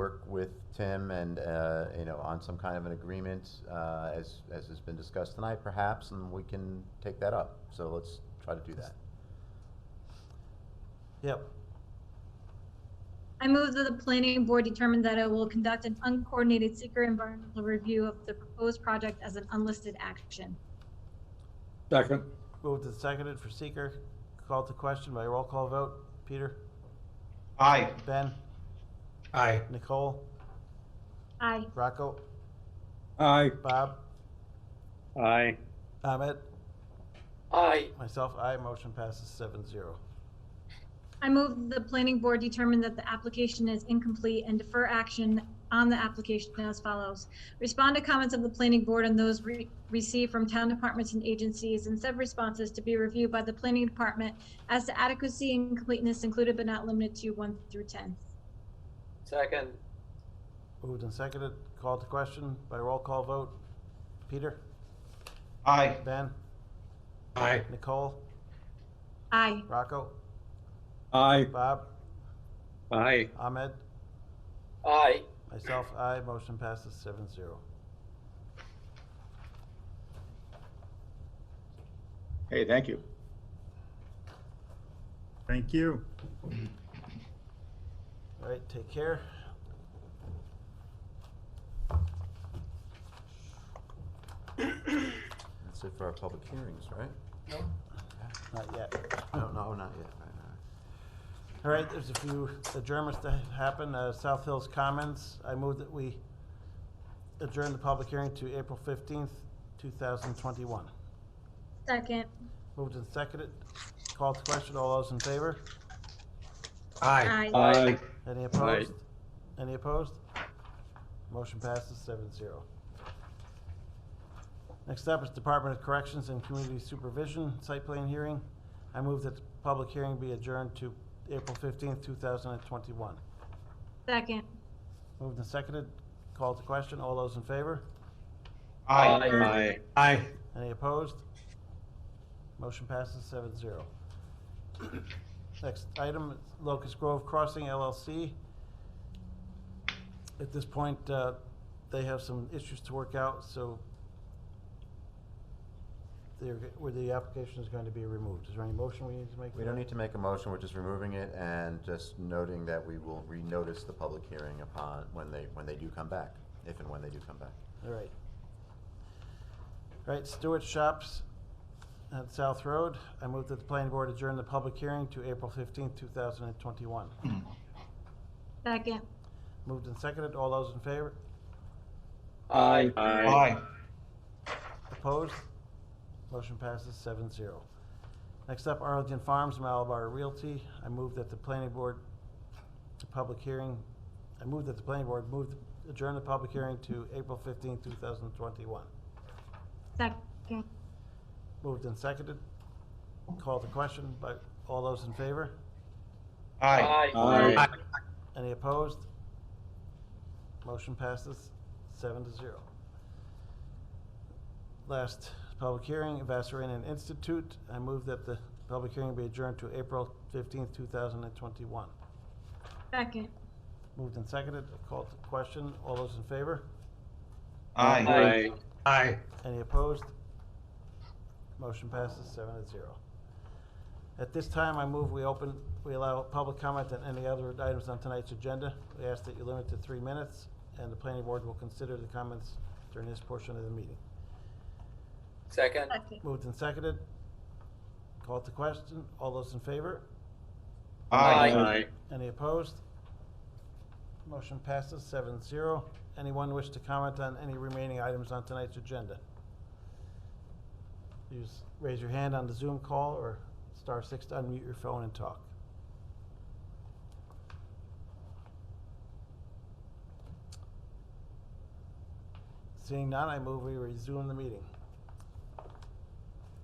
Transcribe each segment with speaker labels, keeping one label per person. Speaker 1: work with Tim and, uh, you know, on some kind of an agreement, uh, as, as has been discussed tonight perhaps, and we can take that up. So let's try to do that.
Speaker 2: Yep.
Speaker 3: I move that the planning board determine that it will conduct an uncoordinated secret environmental review of the proposed project as an unlisted action.
Speaker 4: Second.
Speaker 2: Moved and seconded for seeker. Called to question by roll call vote. Peter?
Speaker 5: Aye.
Speaker 2: Ben?
Speaker 4: Aye.
Speaker 2: Nicole?
Speaker 3: Aye.
Speaker 2: Rocco?
Speaker 4: Aye.
Speaker 2: Bob?
Speaker 4: Aye.
Speaker 2: Ahmed?
Speaker 6: aye,
Speaker 2: Myself, aye. Motion passes seven zero.
Speaker 3: I move that the planning board determine that the application is incomplete and defer action on the application as follows. Respond to comments of the planning board and those re- received from town departments and agencies and said responses to be reviewed by the planning department as to adequacy and completeness included but not limited to one through 10.
Speaker 6: second,
Speaker 2: Moved and seconded. Called to question by roll call vote. Peter?
Speaker 5: Aye.
Speaker 2: Ben?
Speaker 4: Aye.
Speaker 2: Nicole?
Speaker 3: Aye.
Speaker 2: Rocco?
Speaker 4: Aye.
Speaker 2: Bob?
Speaker 4: Aye.
Speaker 2: Ahmed?
Speaker 6: aye,
Speaker 2: Myself, aye. Motion passes seven zero.
Speaker 7: Hey, thank you.
Speaker 4: Thank you.
Speaker 2: All right, take care.
Speaker 1: That's it for our public hearings, right?
Speaker 2: Not yet.
Speaker 1: No, no, not yet, right, all right.
Speaker 2: All right, there's a few adjournments to happen. Uh, South Hills Commons, I move that we adjourn the public hearing to April fifteenth, two thousand twenty-one.
Speaker 3: Second.
Speaker 2: Moved and seconded. Call to question. All those in favor?
Speaker 3: Aye.
Speaker 4: Aye.
Speaker 2: Any opposed? Any opposed? Motion passes seven zero. Next up is Department of Corrections and Community Supervision Site Plan Hearing. I move that the public hearing be adjourned to April fifteenth, two thousand and twenty-one.
Speaker 3: Second.
Speaker 2: Moved and seconded. Call to question. All those in favor?
Speaker 5: Aye.
Speaker 3: Aye.
Speaker 4: Aye.
Speaker 2: Any opposed? Motion passes seven zero. Next item, Locust Grove Crossing LLC. At this point, uh, they have some issues to work out, so they're, where the application is going to be removed. Is there any motion we need to make?
Speaker 1: We don't need to make a motion, we're just removing it and just noting that we will renotice the public hearing upon, when they, when they do come back, if and when they do come back.
Speaker 2: All right. All right, Stewart Shops at South Road. I move that the planning board adjourn the public hearing to April fifteenth, two thousand and twenty-one.
Speaker 3: Second.
Speaker 2: Moved and seconded. All those in favor?
Speaker 6: aye,
Speaker 5: Aye.
Speaker 2: Opposed? Motion passes seven zero. Next up, Arlington Farms Malabar Realty. I move that the planning board, the public hearing, I move that the planning board move, adjourn the public hearing to April fifteenth, two thousand twenty-one.
Speaker 3: Second.
Speaker 2: Moved and seconded. Call the question, but all those in favor?
Speaker 5: Aye.
Speaker 6: aye,
Speaker 4: Aye.
Speaker 2: Any opposed? Motion passes seven to zero. Last public hearing, Vassaranian Institute. I move that the public hearing be adjourned to April fifteenth, two thousand and twenty-one.
Speaker 3: Second.
Speaker 2: Moved and seconded, called to question. All those in favor?
Speaker 5: Aye.
Speaker 4: Aye.
Speaker 2: Any opposed? Motion passes seven to zero. At this time, I move we open, we allow public comment on any other items on tonight's agenda. We ask that you limit to three minutes, and the planning board will consider the comments during this portion of the meeting.
Speaker 6: second,
Speaker 3: Second.
Speaker 2: Moved and seconded. Call to question. All those in favor?
Speaker 6: Aye.
Speaker 2: Any opposed? Motion passes seven zero. Anyone wish to comment on any remaining items on tonight's agenda? Use, raise your hand on the Zoom call or star six to unmute your phone and talk. Seeing none, I move we resume the meeting.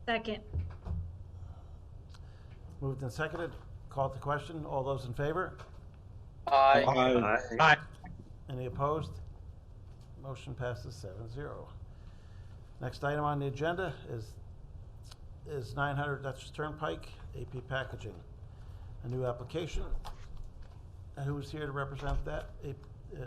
Speaker 3: Second.
Speaker 2: Moved and seconded, called to question, all those in favor?
Speaker 6: aye,
Speaker 4: Aye.
Speaker 2: Any opposed? Motion passes seven zero. Next item on the agenda is, is nine hundred Dutchess Turnpike, AP Packaging, a new application. And Who's here to represent that? A- uh,